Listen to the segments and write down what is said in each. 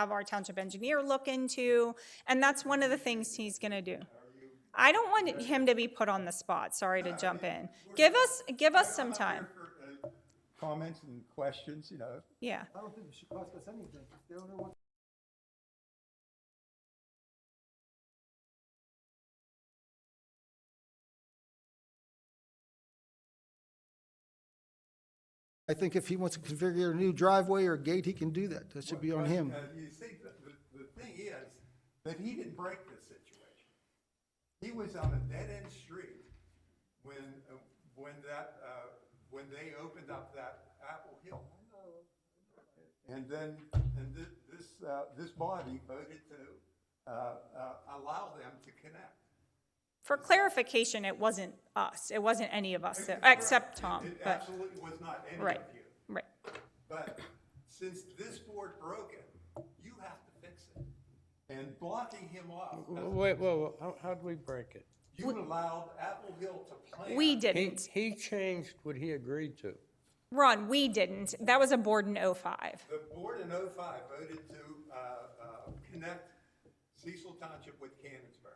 have our township engineer look into, and that's one of the things he's gonna do. I don't want him to be put on the spot, sorry to jump in. Give us, give us some time, uh, Comments and questions, you know, yeah. I don't think it should cost us anything. They don't know what I think if he wants to configure a new driveway or gate, he can do that. That should be on But, him. uh, You see, the, the, the thing is, that he didn't break the situation. He was on a dead-end street when, uh, when that, uh, when they opened up that Apple Hill. And then, and thi- this, uh, this body voted to, uh, uh, allow them to connect. For clarification, it wasn't us, it wasn't any of us, except Tom, It but, absolutely was not any right, of you. right. But since this board broke it, you have to fix it. And blocking him off doesn't Wait, whoa, whoa, how, how'd we break it? You allowed Apple Hill to plan. We He, didn't, he changed what he agreed to. Ron, we didn't, that was a board in oh oh-five. The board in oh-five voted to, uh, uh, connect Cecil Township with Canonsburg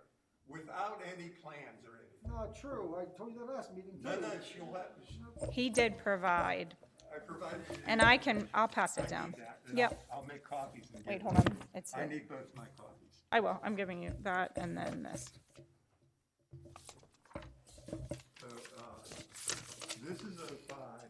without any plans or anything. Not true. I told you that last meeting too. No, no, she'll have, she- He did provide, I provided. you- and I can, I'll pass I it need down. that, and Yep, I'll I'll make copies and. give wait, it hold to on, you. it's, I it. need both my copies. I will, I'm giving you that and then this. So, uh, this is oh-five,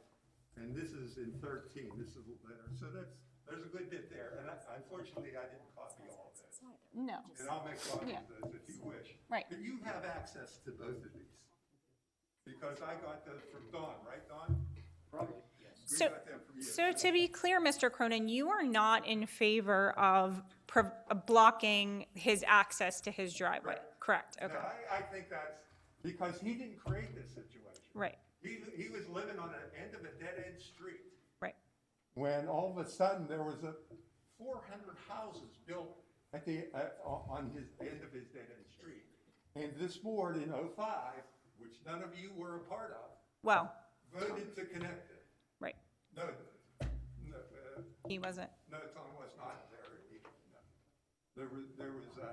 and this is in thirteen, this is better, so that's, there's a good bit there, and I- unfortunately, I didn't copy all of it. No. And I'll make copies Yeah. of those if you wish. Right. But you have access to both of these. Because I got those from Don, right, Don? Probably. We So- got them from you. So to be clear, Mr. Cronin, you are not in favor of pro- blocking his access to his driveway? Correct, Now, okay, I, I think that's because he didn't create this situation. right, He, he was living on the end of a dead-end street. right, When all of a sudden, there was a four hundred houses built at the, uh, on on his, end of his dead-end street. And this board in oh-five, which none of you were a part of, well, voted to connect it. right, No, no, uh, he wasn't, no, Tom was not there. No. There was, there was uh,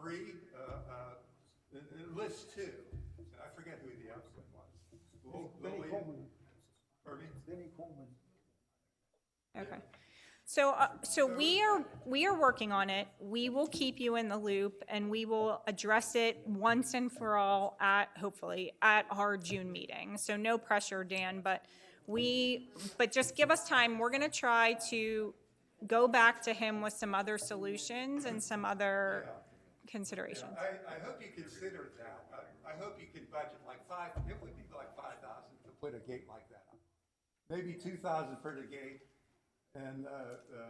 three, uh, uh, and- and list two, and I forget who the other one was. Lil- Benny Lillian- Coleman, Pardon me? Benny Coleman. okay. So, uh, so we are, we are working on it, we will keep you in the loop, and we will address it once and for all at, hopefully, at our June meeting. So no pressure, Dan, but we, but just give us time, we're gonna try to go back to him with some other solutions and some other considerations. I, I hope you consider that. I, I hope you can budget like five, it would be like five thousand to put a gate like that up. Maybe two thousand for the gate, and, uh, uh,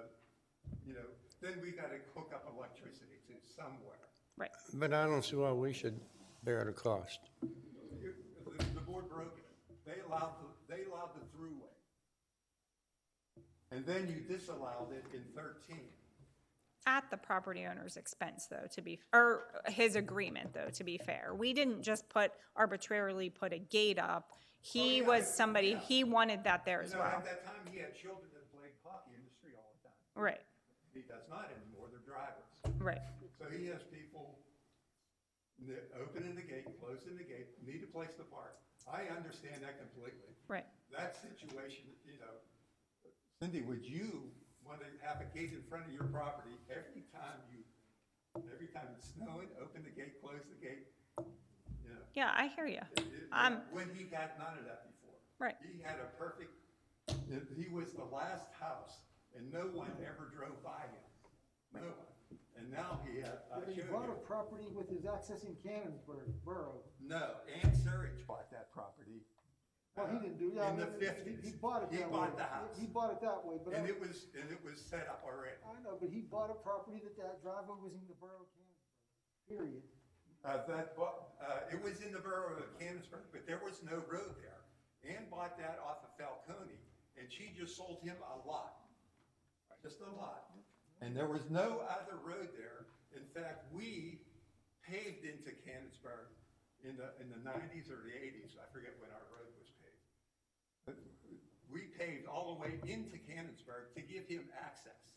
you know, then we gotta hook up electricity to somewhere. Right, But I don't see why we should bear the cost. You- The, the board broke it. They allowed, the- they allowed the throughway. And then you disallowed it in thirteen. at the property owner's expense, though, to be, or his agreement, though, to be fair. We didn't just put, arbitrarily put a gate up. He Oh, yeah, was I- somebody, yeah. he wanted that there You as know, well. at that time, he had children that played hockey in the street all the time. Right, He does not anymore, they're drivers. right, So he has people that opening the gate, closing the gate, need a place to park. I understand that completely. right. That situation, you know, Cindy, would you want to have a gate in front of your property every time you, every time it's snowing, open the gate, close the gate? You know, Yeah, I hear you. it- Um, When he got none of that before. Right. He had a perfect, he was the last house and no one ever drove by him. No one. And now he had, I But showed he bought you. a property with his access in Cannonsburg Borough. No, Ann Surridge bought that property. Well, he uh, didn't do that. In the He- fifties. He bought it He that way. bought the house. He bought it that way, but. And I- it was, and it was set up already. I know, but he bought a property that that driveway was in the borough of Canonsburg, period. Uh, that, bu- uh, it was in the borough of Canonsburg, but there was no road there. Ann bought that off of Falcone, and she just sold him a lot, just a lot. And there was no other road there. In fact, we paved into Canonsburg in the, in the nineties or the eighties, I forget when our road was paved. But We paved all the way into Canonsburg to give him access.